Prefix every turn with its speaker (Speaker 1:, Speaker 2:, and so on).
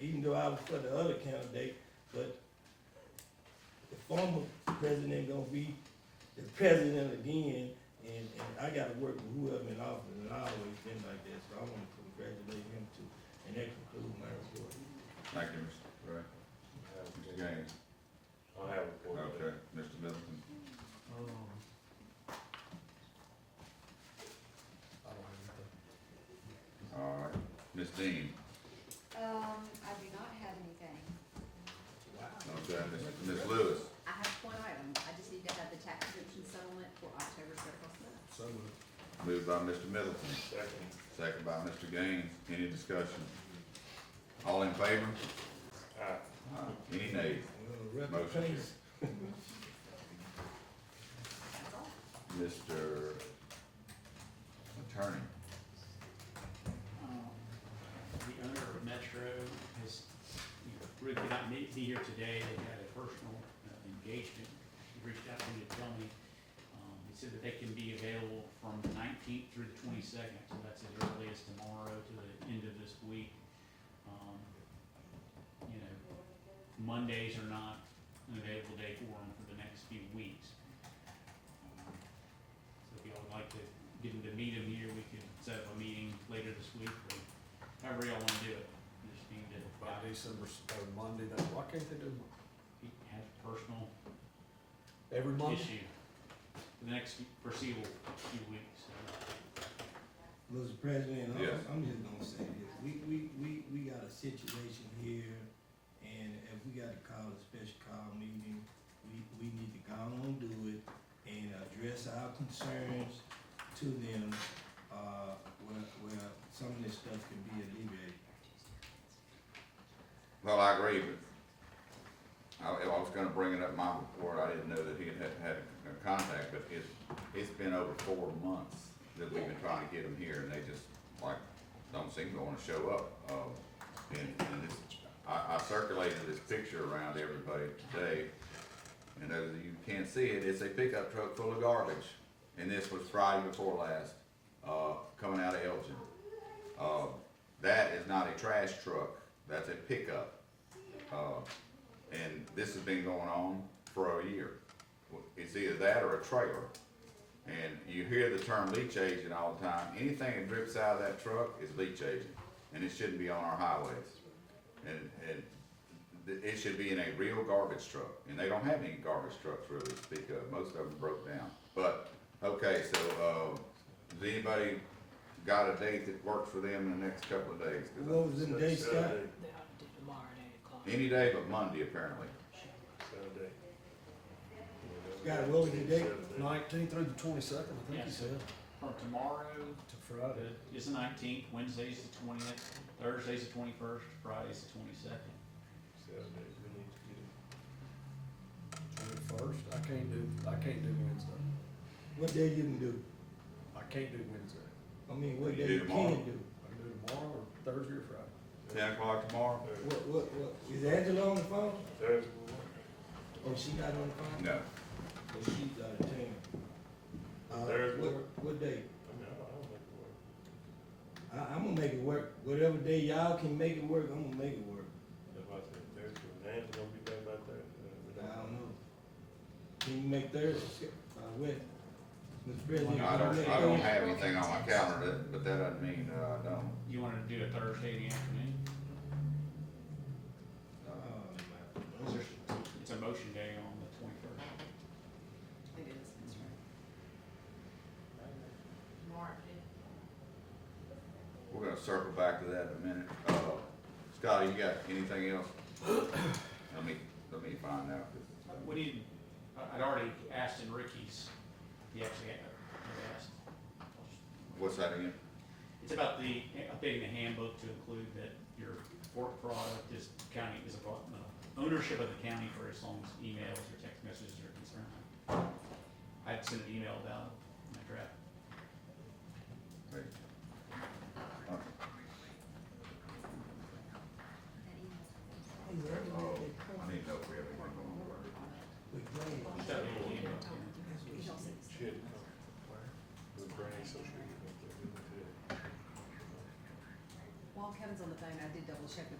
Speaker 1: even though I was for the other candidate, but the former president gonna be the president again, and, and I gotta work with whoever in office, and I always been like that, so I wanna congratulate him too, and that concludes my report.
Speaker 2: Thank you, Mr. Ray. Mr. Gaines,
Speaker 3: I have a report.
Speaker 2: okay, Mr. Middleton, all right, Ms. Dean,
Speaker 4: Um, I do not have anything.
Speaker 2: okay, Ms. Ms. Lewis,
Speaker 4: I have one item, I just need to have the tax exemption settlement for October thirty-first month.
Speaker 2: moved by Mr. Middleton,
Speaker 3: Second.
Speaker 2: second by Mr. Gaines, any discussion? All in favor?
Speaker 3: Aye.
Speaker 2: Aye. Any nays?
Speaker 1: Well,
Speaker 2: Motion
Speaker 1: rest in peace.
Speaker 4: That's all.
Speaker 2: Mr. Attorney,
Speaker 5: Um, The owner of Metro has, you know, Rick could not meet, be here today, they had a personal uh, engagement, he reached out to me to tell me. Um, He said that they can be available from the nineteenth through the twenty-second, so that's as early as tomorrow to the end of this week. Um, You know, Mondays are not an available day for them for the next few weeks. Um, So if y'all would like to get him to meet him here, we could set up a meeting later this week, or however y'all wanna do it. Just need to,
Speaker 6: By December, s- or Monday, then, why can't they do Mon-
Speaker 5: he has personal
Speaker 6: every Monday?
Speaker 5: issue for the next foreseeable few weeks, so.
Speaker 1: Mr. President, I'm,
Speaker 2: Yes.
Speaker 1: I'm just gonna say this, we, we, we, we got a situation here, and if we gotta call a special call meeting, we, we need to go on and do it, and address our concerns to them, uh, where, where some of this stuff can be alleviated.
Speaker 2: well, I agree, but I, I was gonna bring it up in my report, I didn't know that he had, had- had a contact, but it's, it's been over four months that we've been trying to get him here, and they just, like, don't seem to wanna show up. Uh, And, and it's, I, I circulated this picture around everybody today, and as you can see it, it's a pickup truck full of garbage. And this was Friday before last, uh, coming out of Elgin. Uh, that is not a trash truck, that's a pickup. Uh, and this has been going on for a year. It's either that or a trailer. And you hear the term leach agent all the time, anything that drips out of that truck is leach agent, and it shouldn't be on our highways. And, and th- it should be in a real garbage truck, and they don't have any garbage trucks really to speak of, most of them broke down. But, okay, so, uh, does anybody got a date that works for them in the next couple of days? 'Cause I-
Speaker 1: What was in day, Scott?
Speaker 3: Saturday,
Speaker 7: They ought to do tomorrow at eight o'clock.
Speaker 2: Any day but Monday, apparently.
Speaker 3: Saturday.
Speaker 1: Scott, what was the date?
Speaker 3: Saturday.
Speaker 6: Nineteenth through the twenty-second, I think
Speaker 5: Yeah.
Speaker 6: you said,
Speaker 5: From tomorrow,
Speaker 6: to Friday.
Speaker 5: the- it's the nineteenth, Wednesday's the twentieth, Thursday's the twenty-first, Friday's the twenty-second.
Speaker 3: Saturday, we need to get it.
Speaker 6: Twenty-first, I can't do, I can't do Wednesday.
Speaker 1: What day you can do?
Speaker 6: I can't do Wednesday.
Speaker 1: I mean, what
Speaker 2: You
Speaker 1: day
Speaker 2: do
Speaker 1: you can
Speaker 2: tomorrow.
Speaker 1: do?
Speaker 6: I can do tomorrow or Thursday or Friday.
Speaker 2: Ten o'clock tomorrow?
Speaker 3: Thursday.
Speaker 1: What, what, what, is Angela on the phone?
Speaker 3: Thursday.
Speaker 1: Oh, she not on the phone?
Speaker 2: No.
Speaker 1: Oh, she's out of town. Uh,
Speaker 3: There's
Speaker 1: what,
Speaker 3: one.
Speaker 1: what day?
Speaker 3: I mean, I don't think it works.
Speaker 1: I, I'm gonna make it work. Whatever day y'all can make it work, I'm gonna make it work.
Speaker 3: That's why I said Thursday, Nan's gonna be back by Thursday.
Speaker 1: I don't know. Can you make Thursday? By when? Mr. President.
Speaker 2: I
Speaker 1: can you
Speaker 2: don't,
Speaker 1: make
Speaker 2: I don't
Speaker 1: Thursday?
Speaker 2: have anything on my calendar, that- but that doesn't mean, uh, I don't.
Speaker 5: You wanna do it Thursday in the afternoon?
Speaker 1: Oh,
Speaker 2: uh,
Speaker 5: Is
Speaker 1: my.
Speaker 5: there- It's a motion day on the twenty-first.
Speaker 4: It is, that's right. Mark,
Speaker 2: We're gonna circle back to that in a minute. Uh, Scotty, you got anything else? Let me, let me find out.
Speaker 5: We need, I- I'd already asked in Ricky's, he actually had, had asked.
Speaker 2: What's that again?
Speaker 5: It's about the, updating the handbook to include that your work product is county, is about uh, ownership of the county for as long as emails or text messages are concerned. I had sent an email about my draft.
Speaker 2: Wait.
Speaker 4: that email.
Speaker 2: Oh, I need to know if we have anything on work.
Speaker 5: Just that little email, yeah.
Speaker 4: He also sent
Speaker 3: She had to come. With Brandy, so she could get up there.
Speaker 4: While Kevin's on the phone, I did double check with